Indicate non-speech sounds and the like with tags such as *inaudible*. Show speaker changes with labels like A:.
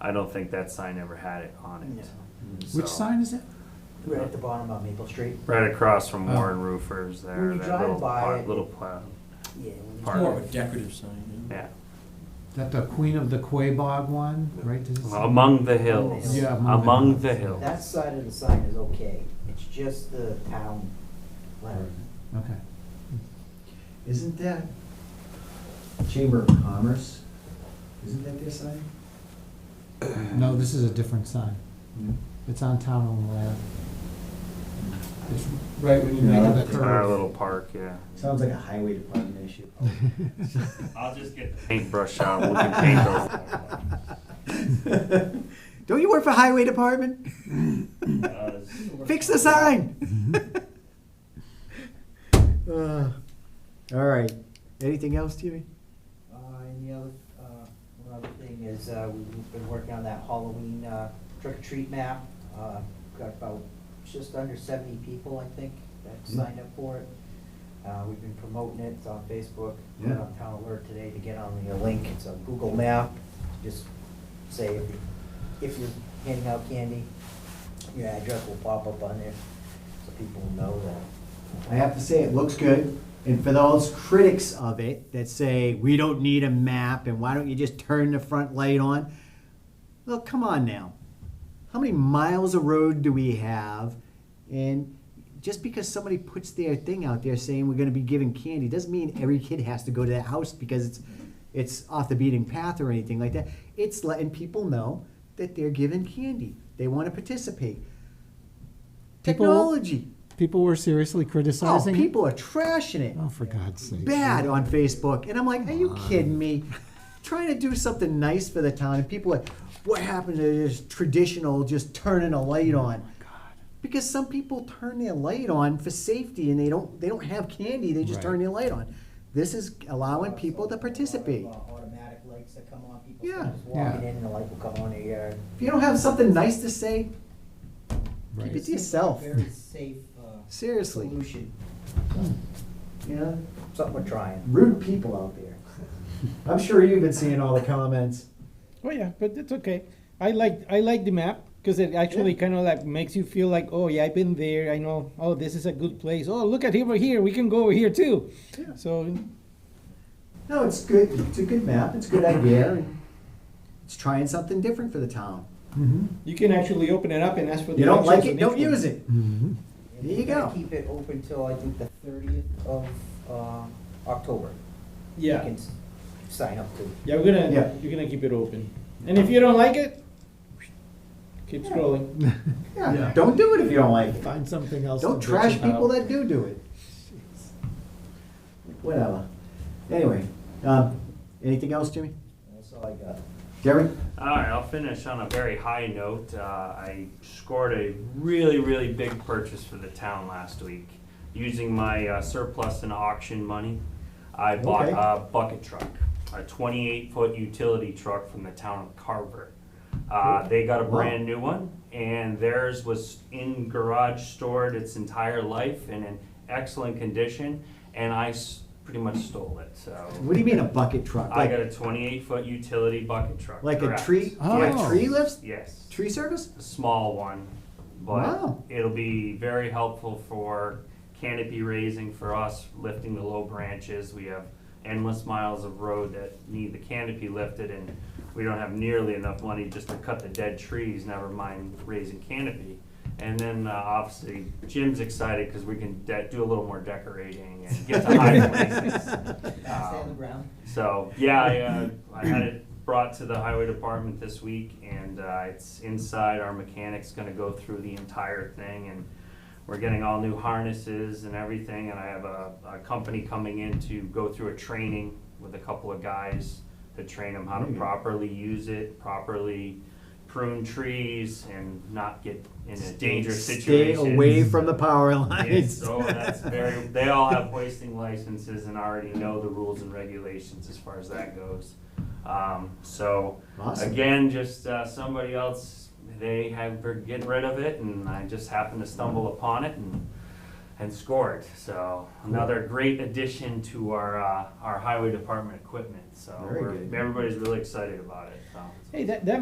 A: I don't think that sign ever had it on
B: Yeah.
C: Mm-hmm.
A: it.
D: Which
A: So-
D: sign is it?
B: We're at the bottom of Maple Street.
A: Right across from
D: Oh.
A: Warren Roofers there,
B: When you
A: that
B: drive
A: little,
B: by
A: pla-
B: it-
A: little plow,
B: Yeah. when you-
A: Park.
E: More of a decorative sign, yeah.
A: yeah,
D: That the Queen of the Quabog one, right? Does it say-
A: among the hills,
B: Yeah,
A: among the hills.
B: That side of the sign is okay, it's just the town letter.
D: Okay.
C: Isn't that Chamber of Commerce? Isn't that their sign?
D: *clears throat* No, this is a different sign. It's on Town Hall Ave. It's right when you make
C: No,
D: the
C: it's
D: curve.
A: Our little park, yeah.
C: Sounds like a highway
D: *laughs*
C: department issue.
A: I'll just get the paintbrush out, we can paint those.
C: *laughs* Don't you work for highway department?
A: Uh, *laughs*
C: Fix the sign. *laughs* Uh, All right, anything else, Jimmy?
B: Uh, and the other, uh, one other thing is, uh, we- we've been working on that Halloween, uh, trick or treat map. Uh, got about just under seventy people, I think, that signed up for it. Uh, we've been promoting it, it's on Facebook, put it
C: Yeah.
B: on Town Alert today to get on the link, it's a Google map. Just say if, you- if you're handing out candy, your address will pop up on there, so people know that.
C: I have to say, it looks good. And for those critics of it that say, we don't need a map and why don't you just turn the front light on? Well, come on now. How many miles of road do we have? And just because somebody puts their thing out there saying we're going to be giving candy doesn't mean every kid has to go to that house because it's it's off the beaten path or anything like that. It's letting people know that they're given candy. They want to participate.
D: People-
C: Technology.
D: People were seriously
C: Oh,
D: criticizing it?
C: people are trashing it
D: Oh, for God's sake.
C: bad on Facebook. And I'm like, are you kidding me? Trying to do something nice for the town, and people are like, what happened to this traditional just turning a light
D: Mm.
C: on? Because some people turn their light on for safety, and they don't they don't have candy. They just
D: Right.
C: turn their light on. This is allowing people to participate.
B: Automatic lights that come on, people
C: Yeah.
B: just walking
D: Yeah.
B: in, the light will come on their yard.
C: If you don't have something nice to say,
D: Right.
C: keep it to yourself.
B: Very safe uh,
C: Seriously,
B: solution,
C: you know,
B: something we're trying.
C: rude people out there. *laughs* I'm sure you've been seeing all the comments.
F: Oh yeah, but it's okay. I like I like the map because it actually kind of like makes you feel like oh yeah I've been there. I know oh this is a good place. Oh look at over here. We can go over here too.
C: Yeah.
F: So
C: No, it's good. It's a good map. It's a good idea. and It's trying something different for the town.
D: Mhm.
F: you can actually open it up and ask for.
C: You don't like it, don't use it.
D: Mhm.
B: And
C: There
B: we're
C: you
B: gonna
C: go.
B: Keep it open till I think the thirtieth of uh, October. You
F: Yeah,
B: can s- sign up to.
F: yeah, we're gonna
C: Yeah.
F: you're gonna keep it open. And if you don't like it, keep scrolling.
C: Yeah, don't do it if you don't like it.
D: Find something else.
C: Don't
D: to bitch
C: trash
D: about.
C: people that do do it. Whatever. Anyway, um, anything else, Jimmy?
B: That's all I
C: *laughs*
B: got.
C: Jerry?
A: All right, I'll finish on a very high note. Uh, I scored a really, really big purchase for the town last week using my uh, surplus and auction money. I bought
C: Okay.
A: a bucket truck, a 28 foot utility truck from the town of Carver. Uh, they got a
C: Wow.
A: brand new one, and theirs was in garage stored its entire life in an excellent condition, and I s- pretty much stole it. So
C: What do you mean a bucket truck?
A: I got
C: Like,
A: a 28 foot utility bucket truck.
C: like a
A: correct.
C: tree,
D: Oh.
C: like tree lifts,
A: Yes,
C: tree service?
A: a small one, but
C: Wow.
A: it'll be very helpful for canopy raising for us, lifting the low branches. We have endless miles of road that need the canopy lifted and we don't have nearly enough money just to cut the dead trees, never mind raising canopy. And then uh, obviously Jim's excited because we can de- do a little more decorating and get
C: *laughs*
A: to high places.
B: Stay on the ground.
A: So yeah, I, uh, I had it brought to the highway department this week, and uh, it's inside. Our mechanic's going to go through the entire thing, and we're getting all new harnesses and everything. And I have a, a company coming in to go through a training with a couple of guys to train them how to
C: Mm.
A: properly use it, properly prune trees, and not get in a dangerous situation.
C: Stay away from the power lines.
A: Yes, so that's very, they all have hoisting licenses and already know the rules and regulations as far as that goes. Um, so,
C: Awesome.
A: again, just, uh, somebody else, they have, were getting rid of it and I just happened to stumble upon it and, and scored. So, another great addition to our, uh, our highway department equipment, so.
C: Very
A: we're-
C: good.
A: Everybody's really excited about it, so.
F: Hey, that that